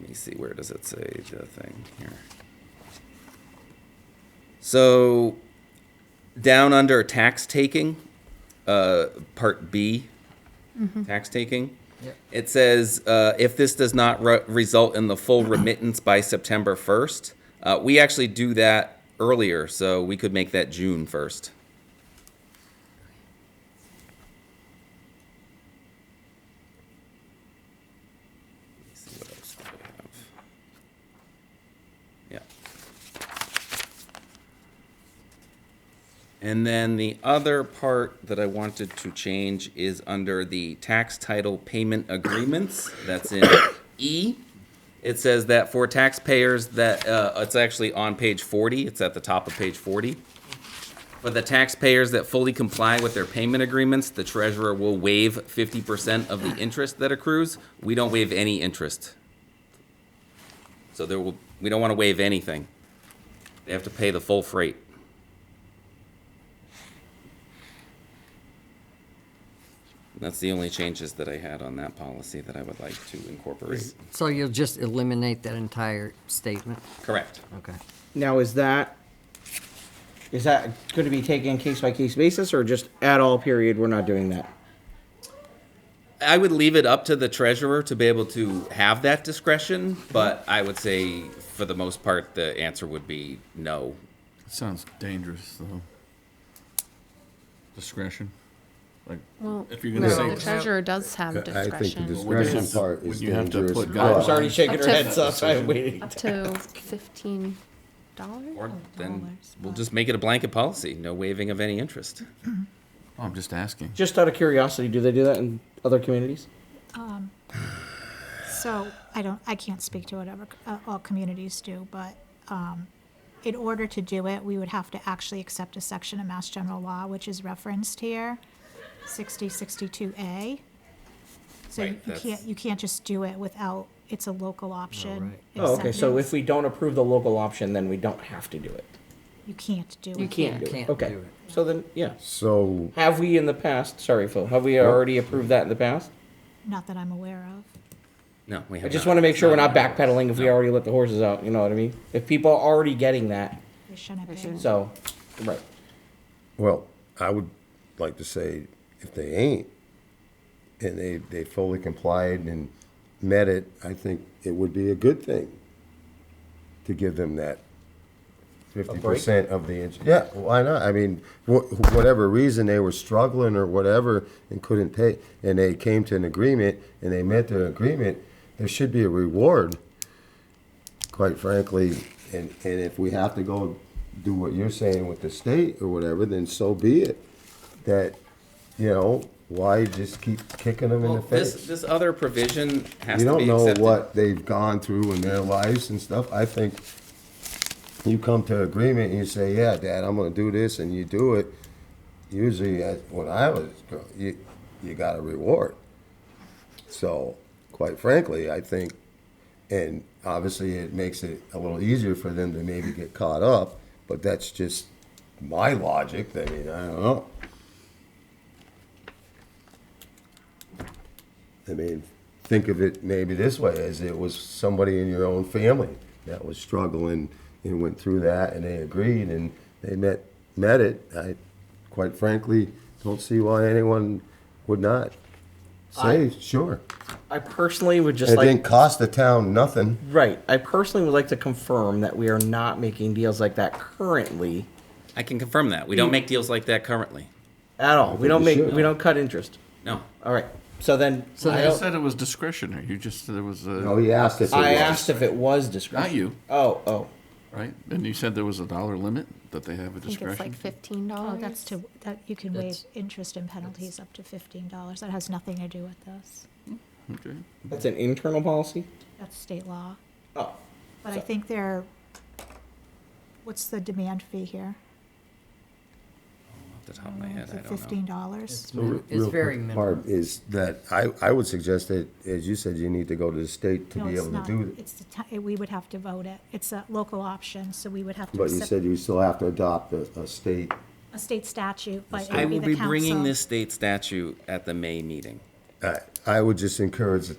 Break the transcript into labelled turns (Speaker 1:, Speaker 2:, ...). Speaker 1: Let me see, where does it say the thing here? So, down under tax taking, uh, part B, tax taking. It says, uh, if this does not re- result in the full remittance by September first, uh, we actually do that earlier, so we could make that June first. see what else do we have. Yeah. And then the other part that I wanted to change is under the tax title payment agreements, that's in E. It says that for taxpayers that, uh, it's actually on page forty, it's at the top of page forty. For the taxpayers that fully comply with their payment agreements, the treasurer will waive fifty percent of the interest that accrues. We don't waive any interest. So there will, we don't want to waive anything. They have to pay the full freight. That's the only changes that I had on that policy that I would like to incorporate.
Speaker 2: So you'll just eliminate that entire statement?
Speaker 1: Correct.
Speaker 2: Okay.
Speaker 3: Now, is that, is that going to be taken case by case basis or just at all period, we're not doing that?
Speaker 1: I would leave it up to the treasurer to be able to have that discretion, but I would say for the most part, the answer would be no.
Speaker 4: Sounds dangerous, though. Discretion? Like, if you're
Speaker 5: No,
Speaker 4: gonna
Speaker 5: the
Speaker 4: say.
Speaker 5: treasurer does have
Speaker 6: I think the
Speaker 5: discretion
Speaker 6: discretion
Speaker 4: Wouldn't you have
Speaker 6: part
Speaker 4: to-
Speaker 6: is
Speaker 4: wouldn't you have to
Speaker 6: dangerous.
Speaker 4: put
Speaker 6: but-
Speaker 4: guidelines?
Speaker 3: She's already shaking
Speaker 5: Up
Speaker 3: her
Speaker 5: to-
Speaker 3: head, so I'm waiting.
Speaker 5: up to fifteen dollars.
Speaker 7: Oh,
Speaker 1: Or then we'll just make it a blanket policy, no waiving of any interest.
Speaker 4: Oh, I'm just asking.
Speaker 3: Just out of curiosity, do they do that in other communities?
Speaker 7: So I don't, I can't speak to whatever uh, all communities do, but um, in order to do it, we would have to actually accept a section of Mass General Law, which is referenced here, 60, 62A. So
Speaker 1: Right,
Speaker 7: you you
Speaker 1: that's-
Speaker 7: can't, you can't just do it without, it's a local option.
Speaker 2: right.
Speaker 3: Oh, okay, so
Speaker 7: acceptance.
Speaker 3: if we don't approve the local option, then we don't have to do it.
Speaker 7: You can't do it.
Speaker 3: You can't do it,
Speaker 2: Can't
Speaker 3: okay.
Speaker 2: do it.
Speaker 3: So then, yeah.
Speaker 6: So,
Speaker 3: Have we in the past, sorry Phil, have we already approved that in the past?
Speaker 7: Not that I'm aware of.
Speaker 1: No, we
Speaker 3: I
Speaker 1: have
Speaker 3: just
Speaker 1: not.
Speaker 3: want to make sure we're not backpedaling if we already let the horses out, you know what I mean? If people are already getting that,
Speaker 7: They shouldn't have been.
Speaker 3: so, right.
Speaker 6: well, I would like to say, if they ain't, and they, they fully complied and met it, I think it would be a good thing to give them that fifty percent of the, ins- yeah, why not? I mean, wh- whatever reason, they were struggling or whatever and couldn't pay, and they came to an agreement and they met their agreement, there should be a reward quite frankly, and, and if we have to go do what you're saying with the state or whatever, then so be it. That, you know, why just keep kicking them in
Speaker 1: Well,
Speaker 6: the
Speaker 1: this,
Speaker 6: face?
Speaker 1: this other provision has
Speaker 6: You
Speaker 1: to be
Speaker 6: don't know
Speaker 1: accepted.
Speaker 6: what they've gone through in their lives and stuff. I think you come to agreement and you say, yeah, Dad, I'm gonna do this, and you do it. Usually, uh, when I was, gr- you, you got a reward. So, quite frankly, I think and obviously, it makes it a little easier for them to maybe get caught up, but that's just my logic. I mean, I don't know. I mean, think of it maybe this way as it was somebody in your own family that was struggling and went through that and they agreed and they met, met it. I, quite frankly, don't see why anyone would not say, sure.
Speaker 3: I personally would just
Speaker 6: It
Speaker 3: like.
Speaker 6: didn't cost the town nothing.
Speaker 3: Right. I personally would like to confirm that we are not making deals like that currently
Speaker 1: I can confirm that.
Speaker 7: Mm.
Speaker 1: We don't make deals like that currently.
Speaker 3: at all. We don't
Speaker 6: we
Speaker 3: make
Speaker 6: should.
Speaker 3: we don't cut interest.
Speaker 1: No.
Speaker 3: All right. So then
Speaker 2: So
Speaker 3: I,
Speaker 2: then-
Speaker 4: You
Speaker 3: don't-
Speaker 4: said it was discretionary. You just, there was a,
Speaker 6: No, Oh, he asked if it
Speaker 3: I
Speaker 6: was.
Speaker 3: asked if it was discretion.
Speaker 4: Not you.
Speaker 3: Oh, oh.
Speaker 4: right? And you said there was a dollar limit that they have a
Speaker 5: I think it's like
Speaker 4: discretion?
Speaker 5: fifteen
Speaker 7: Oh,
Speaker 5: dollars.
Speaker 7: that's to, that, you can waive
Speaker 2: That's-
Speaker 7: interest and penalties up to fifteen dollars. That has nothing to do with this.
Speaker 4: Okay.
Speaker 3: That's an internal policy?
Speaker 7: That's state law.
Speaker 3: Oh.
Speaker 7: But I think they're, what's the demand fee here?
Speaker 1: Off the top of my head,
Speaker 7: Is
Speaker 1: I
Speaker 7: it
Speaker 1: don't
Speaker 7: fifteen
Speaker 1: know.
Speaker 7: dollars?
Speaker 6: So re-
Speaker 2: It's
Speaker 6: real
Speaker 2: very
Speaker 6: quick,
Speaker 2: minimal.
Speaker 6: Barb, Is that, I, I would suggest that, as you said, you need to go to the state to
Speaker 7: No,
Speaker 6: be
Speaker 7: it's
Speaker 6: able to
Speaker 7: not.
Speaker 6: do it.
Speaker 7: It's the, ti- we would have to vote it. It's a local option, so we would have to
Speaker 6: But you
Speaker 7: accept
Speaker 6: said you still have to adopt a, a state,
Speaker 7: a state statute, but it
Speaker 1: I
Speaker 7: would be
Speaker 1: will
Speaker 7: the
Speaker 1: be bringing
Speaker 7: council.
Speaker 1: this state statute at the May meeting.
Speaker 6: I, I would just encourage the